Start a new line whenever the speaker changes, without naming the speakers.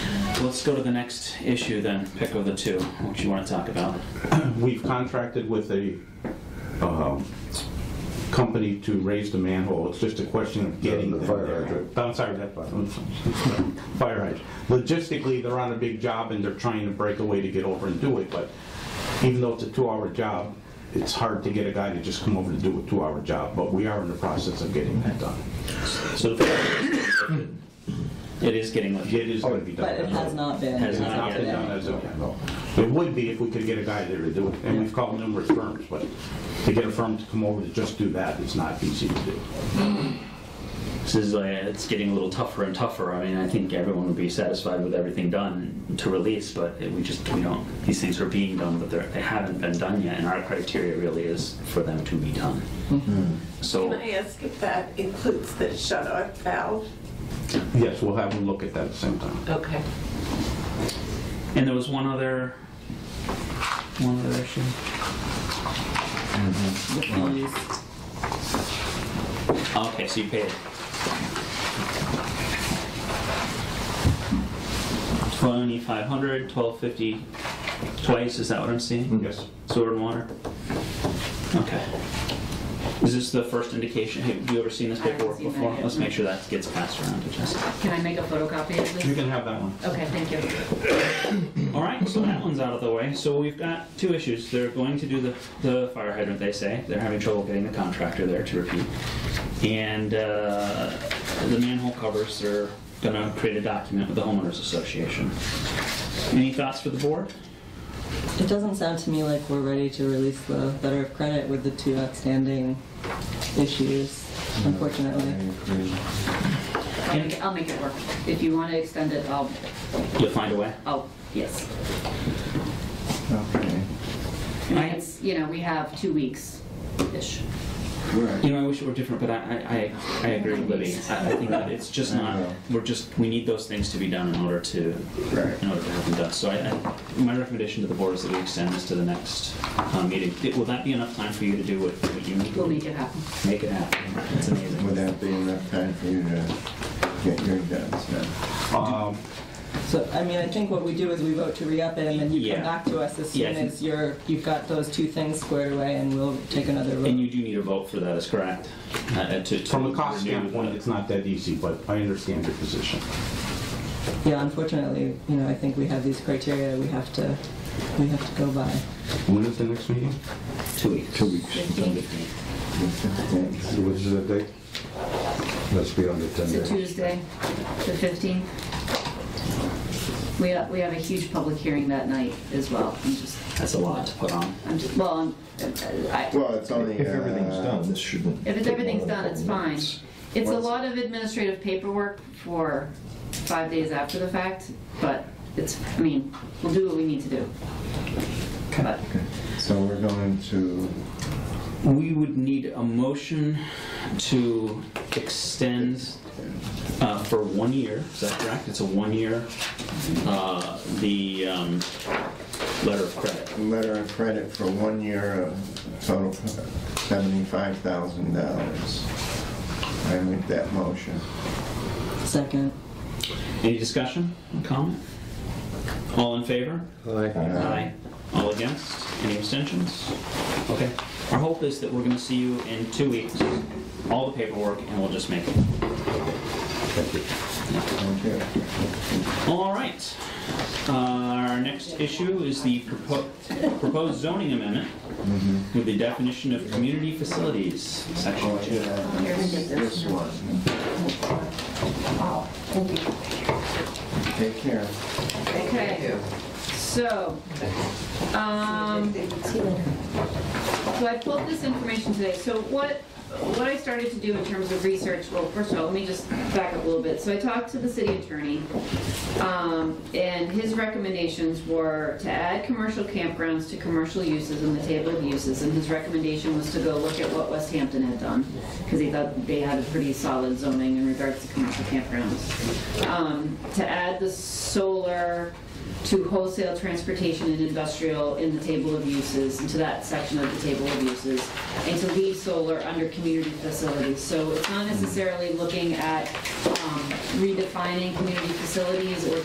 so let's go to the next issue then. Pick of the two, what you want to talk about.
We've contracted with a um, company to raise the manhole. It's just a question of getting
the
them
fire
there.
hydrant.
Oh, I'm sorry, that fire hydrant. Logistically, they're on a big job and they're trying to break away to get over and do it, but even though it's a two-hour job, it's hard to get a guy to just come over to do a two-hour job, but we are in the process of getting that done.
So it is getting lifted.
It is going to be done.
But it has not been.
Has
It's not been done as of yet, no. It would be if we could get a guy there to do it, and we've called numerous firms, but to get a firm to come over to just do that is not easy to do.
This is like, it's getting a little tougher and tougher. I mean, I think everyone would be satisfied with everything done to release, but it- we just, we don't, these things are being done, but they're, they haven't been done yet, and our criteria really is for them to be done.
Can
So,
I ask if that includes the shut-off valve?
Yes, we'll have them look at that at the same time.
Okay.
and there was one other, one other issue.
The fees.
Okay, so you paid. Twenty-five hundred, twelve fifty, twice, is that what I'm seeing?
Yes.
Sewer and water? Okay. Is this the first indication, have you ever seen this
I haven't
paperwork
seen that
before?
yet.
Let's make sure that gets passed around to Jessica.
Can I make a photocopy of
You
this?
can have that one.
Okay, thank you.
All right, so that one's out of the way. So we've got two issues. They're going to do the, the fire hydrant, they say. They're having trouble getting the contractor there to repeat. And uh, the manhole covers, they're gonna create a document with the homeowners association. Any thoughts for the board?
It doesn't sound to me like we're ready to release the letter of credit with the two outstanding issues,
Mm-hmm.
unfortunately.
I'll make it- I'll make it work. If you want to extend it, I'll,
You'll find a way.
I'll, yes.
Okay.
I mean,
I-
it's, you know, we have two weeks-ish.
Right.
You know, I wish it were different, but I, I, I I agree with Libby. I I think that it's just not, we're just, we need those things to be done in order to, in order to have them done. So I, I- my recommendation to the board is that we extend this to the next uh, meeting. It- Will that be enough time for you to do what what you need?
We'll make it happen.
Make it happen. It's
Would
amazing.
that be enough time for you to get your guns done?
Um,
So, I mean, I think what we do is we vote to re-up it, and then you
Yeah.
come back to us as
Yeah, I
soon
think-
as you're, you've got those two things squared away, and we'll take another vote.
And you do need a vote for that, is correct? Uh, uh, to- to
From a cost
renew the-
standpoint, it's not that easy, but I understand your position.
Yeah, unfortunately, you know, I think we have these criteria we have to, we have to go by.
When is the next meeting?
Two weeks.
Two weeks. Thanks.
Which is the date? Let's be on the
It's a
10 days.
Tuesday, the 15th. We have, we have a huge public hearing that night as well. I'm just,
That's a lot to put on.
I'm just, well, I'm- I,
Well, it's only.
If everything's
uh,
done, this shouldn't.
if it's,
take
everything's
more than a
done, it's
couple
fine.
minutes.
It's a
What's-
lot of administrative paperwork for five days after the fact, but it's, I mean, we'll do what we need to do. But
So we're going to
We would need a motion to extend uh, for one year, is that correct? It's a one-year, uh, the um, letter of credit.
letter of credit for one year of total seventy-five thousand dollars. I make that motion.
Second.
Any discussion, comment? All in favor?
Aye.
Aye. All against? Any abstentions? Okay. Our hope is that we're going to see you in two weeks, all the paperwork, and we'll just make it.
Uh, Thank you.
All right. Uh, Our next issue is the propo- proposed zoning amendment with the definition of community facilities, section
Oh,
two.
yeah, This this one. Take care.
Okay, so, um, so I pulled this information today. So what, what I started to do in terms of research, well, first of all, let me just back up a little bit. So I talked to the city attorney, um, and his recommendations were to add commercial campgrounds to commercial uses in the table of uses. And his recommendation was to go look at what West Hampton had done, because he thought they had a pretty solid zoning in regards to commercial campgrounds. Um, To add the solar to wholesale transportation and industrial in the table of uses, into that section of the table of uses, and to leave solar under community facilities. So it's not necessarily looking at um, redefining community facilities or